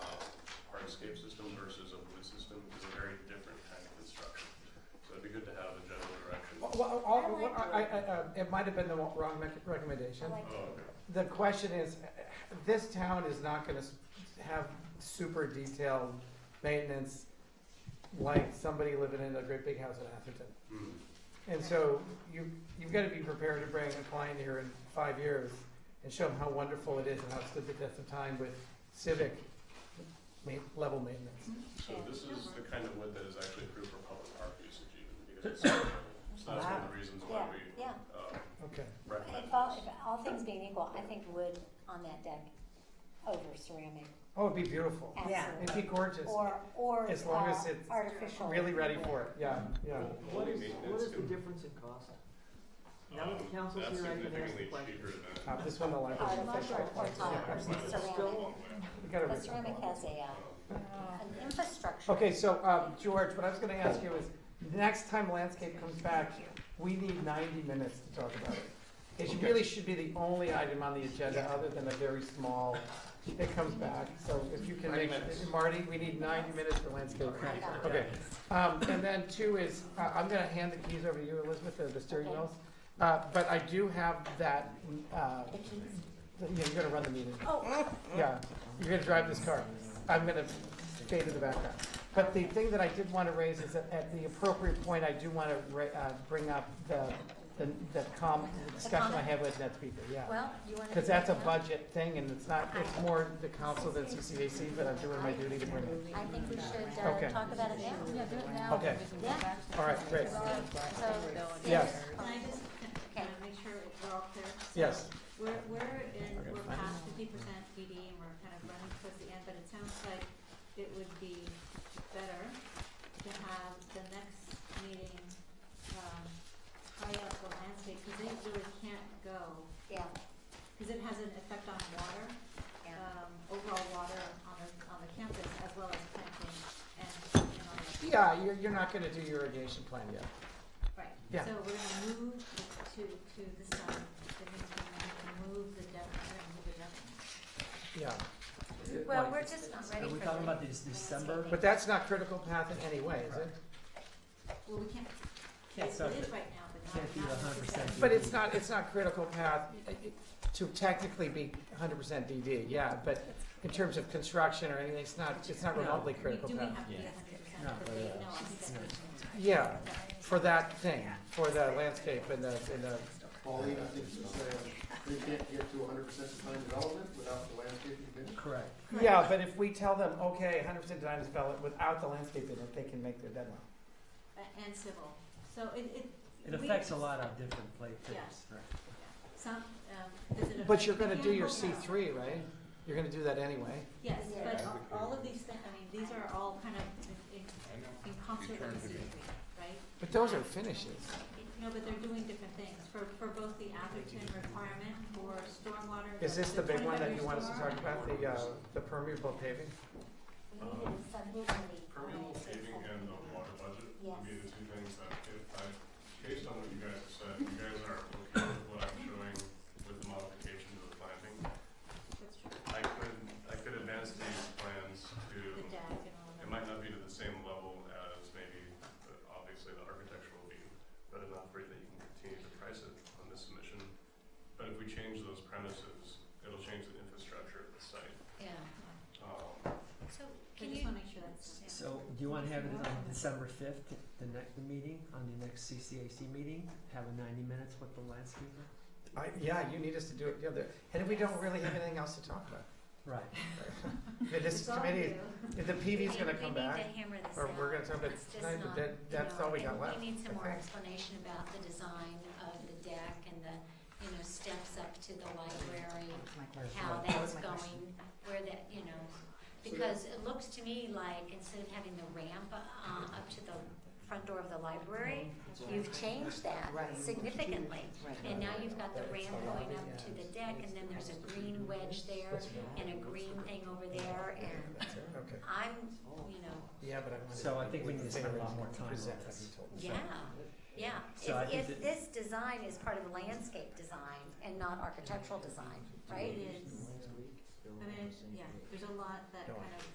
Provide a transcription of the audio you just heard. uh, Oh, So all, I like I, I, I, uh, it might have been the wrong rec- recommendation. I like Oh, okay. The question is, uh, this town is not gonna s- have super detailed maintenance like somebody living in a great big house in Atherton. Hmm. And so you, you've gotta be prepared to bring a client here in five years and show them how wonderful it is and how it's stood the test of time with civic ma- level maintenance. So Mm-hmm. this is the kind of wood that is actually approved for public park usage even. because it's so- So that's one of the reasons why Yeah, we yeah. uh, Okay. recommend If all, this. if all things being equal, I think wood on that deck over ceramic, Oh, it'd be beautiful. It'd be absolutely. gorgeous. Or, or As long as uh, it's artificial. Really ready wood. for it, yeah, yeah. What is, Maintenance what is the too. difference in cost? Now that the Um, council's that's here, I can ask the significantly question. cheaper than- um, Uh, this one, the library. Artificial or tile Yeah. or ceramic. Still- We gotta But reach out. ceramic has a, uh, an infrastructure. Okay, so, um, George, what I was gonna ask you is, next time landscape comes back, we need ninety minutes to talk about it. It really should be the only item on the agenda, other than a very small, it comes back, so if you can 90 make, minutes. Marty, we need ninety minutes for landscape. I got it. Okay, um, and then two is, uh, I'm gonna hand the keys over to you, Elizabeth, of the steering Okay. wheels. Uh, but I do have that, uh, The keys. yeah, you're gonna run the meeting. Oh, Yeah, you're gonna drive this car. I'm gonna stay to the background. But the thing that I did wanna raise is that at the appropriate point, I do wanna ra- uh, bring up the, the, the com, the discussion I comment? had with NetSpeaker, yeah. well, you wanna. Cause do that's a it now? budget thing and it's not, it's more the council than CCAC, but I'm doing my duty to bring it. I think we should, uh, Okay. talk about it now. Yeah, do it now. Okay. because we can Yeah. get back to All right, it. great. So, Yes. Can I just, can I make sure we're all clear? Yes. We're, we're in, We're gonna we're find past fifty percent PD and we're kind of running towards the end, but it sounds like it would be better to have the next meeting, um, high up the landscape, cause they really can't go, Yeah, cause it has an effect on water, yeah. um, overall water on the, on the campus as well as planting and, and all that. Yeah, you're, you're not gonna do your irrigation plan yet. Right, Yeah. so we're gonna move to, to the side, that means we're gonna move the deck, we're gonna move the deck. Yeah. Well, Like, we're just not ready Are for we the. talking about this December? But that's not critical path in any way, is it? Well, we can't, Can't it start is it. right now, but Can't not, be not 100% necessarily. But it's not, it's not critical path uh, to technically be hundred percent DD, yeah, but in terms of construction or anything, it's not, it's not No. remotely We critical do path. have to be Yeah. hundred percent, No, but but, they, uh, no, I think that's. Yeah, for that thing, for the landscape and the, and the, Pauline, I think she's saying, they can't get to hundred percent design development without the landscaping commission. Correct. yeah, but if we tell them, okay, hundred percent design is valid without the landscape in it, they can make their deadline. Uh, and civil, so it, it. It we- affects a lot of different play things, Yeah. right? Some, um, does it But you're affect gonna do your C mechanical? three, right? You're gonna do that anyway. Yes, Yeah. but a- all of these things, I mean, these are all kind of in, in, in concert with the C three, right? But those are finishes. No, but they're doing different things, for, for both the Atherton requirement for stormwater. Is this the big one that you want us to 25 talk about, the, uh, the permeable paving? We needed a subcommittee. Permeable paving and the water budget would be the two things that, if I, based on what you guys have said, you guys are okay with what I'm showing with the modification to the planting. That's true. I could, I could advance these plans to, The deck and all it of might not that. be to the same level as maybe, but obviously the architecture will be, but enough for you that you can continue to price it on this submission. But if we change those premises, it'll change the infrastructure of the site. Yeah. Um, So I can just you, wanna make sure that's, yeah. So, do you wanna have it on December fifth, the next meeting, on the next CCAC meeting, have a ninety minutes with the landscaper? I, yeah, you need us to do it, yeah, the- and we don't really have anything else to talk about. Right. Yeah, This It's all committee, you. if the PV's gonna come We back, need to hammer this or out. we're gonna talk about It's it just tonight, but not, that, you that's know, all we and got left. We need I some more think. explanation about the design of the deck and the, you know, steps up to the library, how that's going, where that, you know, because it looks to me like instead of having the ramp, uh, up to the front door of the library, you've changed that Right. significantly. Right. And now you've got the ramp going up to the deck, and then there's a green wedge there, and a green thing over there, and That's it, Okay, I'm, you know, yeah, but I wanted. So I think we need to spend a lot more time on Present what this. he told us. yeah, yeah. So I think If, if that- this design is part of landscape design and not architectural design, right? It is, I mean, yeah, there's a lot that Go on. kind of